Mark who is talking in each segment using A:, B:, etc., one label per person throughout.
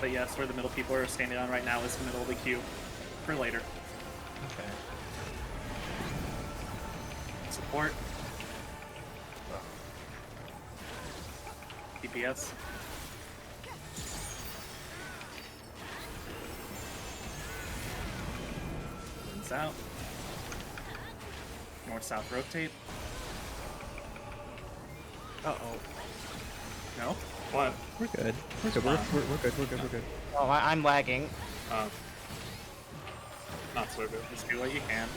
A: But yes, where the middle people are standing on right now is the middle of the queue for later.
B: Okay.
A: Support. DPS. Runs out. North south rotate.
C: Uh oh.
A: No? What?
D: We're good. We're good. We're, we're, we're good. We're good. We're good.
C: Oh, I- I'm lagging.
A: Uh, not so good. Just do what you can.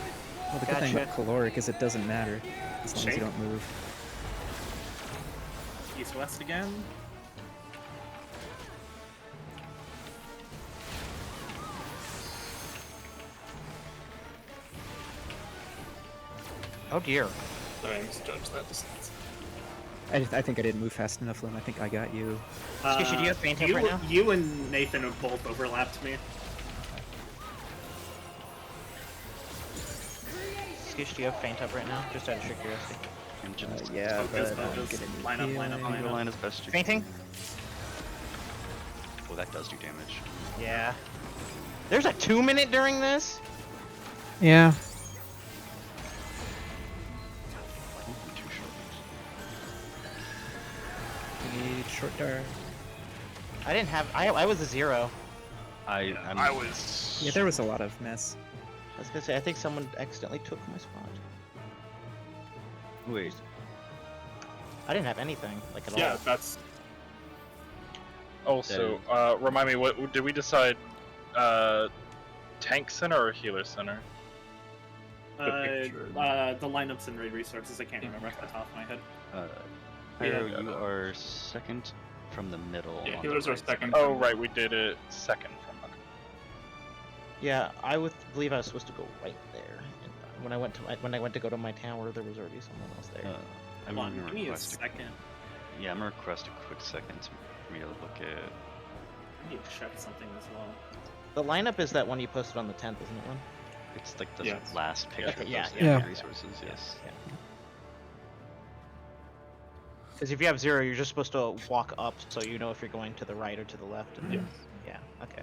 D: Well, the good thing about
C: Gotcha.
D: caloric is it doesn't matter as long
A: Shake.
D: as you don't move.
A: East west again.
C: Oh dear.
A: Sorry, I misjudged that distance.
D: I, just- I think I didn't move fast enough, Lim. I think I got you.
C: Skusha, do you have fan tape
A: Uh, you,
C: right now?
A: You and Nathan have both overlapped me.
C: Skish, do you have faint up right now? Just out of sheer curiosity.
D: Uh,
E: Engine is
D: yeah,
A: focus,
D: but I'm
A: focus.
D: getting
A: Line up, line up,
D: healing.
E: Line, line as best you
C: Fainting?
E: can. Well, that does do damage.
C: Yeah. There's a two minute during this?
D: Yeah.
E: Ooh, Two short.
D: We need short dart.
C: I didn't have. I, I was a zero.
E: I I'm,
B: I was.
D: Yeah, there was a lot of mess.
C: I was gonna say, I think someone accidentally took my spot.
E: wait.
C: I didn't have anything, like at
B: Yeah,
C: all.
B: that's. Also, uh, remind me, what did we decide? Uh, tank center or healer center?
A: Uh,
B: picture.
A: uh, the lineups and raid resources, I can't remember off the top of my head.
E: Uh,
A: Yeah,
E: Pyro,
B: yeah,
E: you
B: no.
E: are second from the middle.
A: Yeah,
E: on
A: healers
E: the
A: are
E: right
A: second.
E: side.
C: Mm-hmm.
B: Oh right, we did it second from. Okay.
C: Yeah, I would believe I was supposed to go right there. And uh, when I went to my, when I went to go to my tower, there was already someone else there.
E: Uh, I'm
A: Hold on,
E: gonna
A: give me a
E: request. A,
A: second.
E: yeah, I'm gonna request a quick second to- for me to look at.
A: I need to check something as well.
C: the lineup is that one you posted on the 10th, isn't it? One.
E: It's like the
A: Yes.
E: last picture of
C: yeah,
E: those
C: yeah,
E: yeah,
C: yeah.
E: resources. Yes.
C: Because if you have zero, you're just supposed to walk up, so you know if you're going to the right or to the left. And then- Yeah. Okay.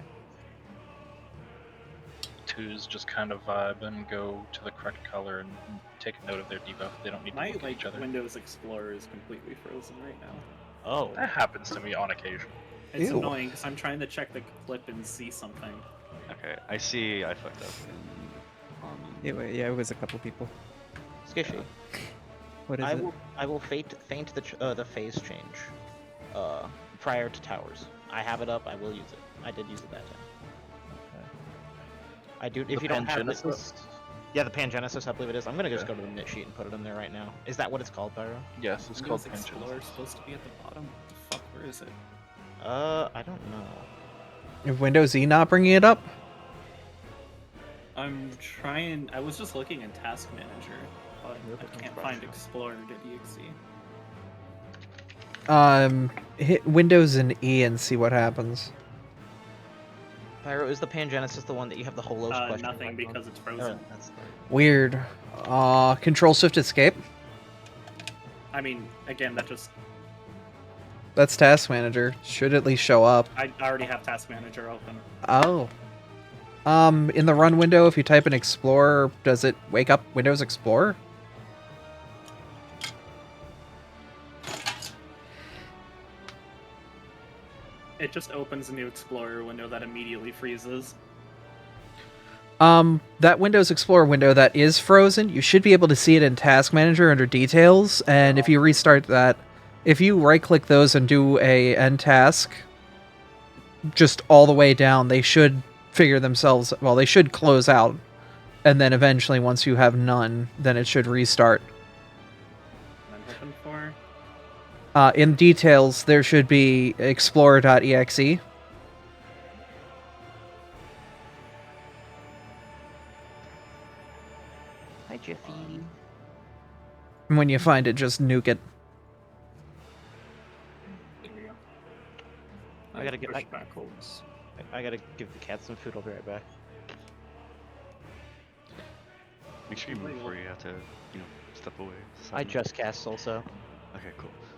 B: Twos just kind of vibe and go to the correct color and take note of their debuff. They don't need to
A: My
B: look at
A: like
B: each other.
A: Windows Explorer is completely frozen right now.
C: Oh.
B: That happens to me on occasion.
A: It's
D: Ew.
A: annoying because I'm trying to check the clip and see something.
E: Okay. I see. I fucked up. And, um,
D: It, wa- yeah, it was a couple people.
C: Skishy.
D: What is
C: I
D: it?
C: will. I will faint faint the ch- uh, the phase change, uh, prior to towers. I have it up. I will use it. I did use it that time. I do. If
E: The
C: you don't have it,
E: Pangenesis?
C: yeah, the Pangenesis, I believe it is. I'm gonna just go to the knit sheet and put it in there right now. Is that what it's called, Pyro?
B: Yes, it's
A: Windows
B: called pinches.
A: Explorer is supposed to be at the bottom. What the fuck, where is it?
C: Uh, I don't know.
F: If Windows E not bringing it up?
A: I'm trying. I was just looking in Task Manager, but I can't find Explorer.exe.
F: Um, hit Windows and E and see what happens.
C: Pyro, is the Pangenesis the one that you have the holos
A: Uh,
C: question?
A: nothing
C: mark on?
A: because it's
C: Oh,
A: frozen.
C: that's
F: Weird. Uh, Control Shift Escape.
A: I mean, again, that just
F: That's Task Manager. Should at least show up.
A: I already have Task Manager open.
F: Oh. Um, in the run window, if you type in Explorer, does it wake up Windows Explorer?
A: It just opens a new Explorer window that immediately freezes.
F: Um, that Windows Explorer window that is frozen, you should be able to see it in Task Manager under Details. And if you restart that, if you right-click those and do a end task, just all the way down, they should figure themselves. Well, they should close out, and then eventually, once you have none, then it should restart.
A: And I'm hoping for.
F: Uh, in Details, there should be E Explorer.exe.
C: Hi, Jiffy.
F: And when you find it, just nuke it.
A: There we go.
C: I gotta get
A: Push
C: back-
A: backwards.
C: I, I gotta give the cat some food. I'll be right back.
E: Make sure you move before you have to, you know, step away.
C: I
E: Suddenly.
C: just cast also.
E: Okay, cool.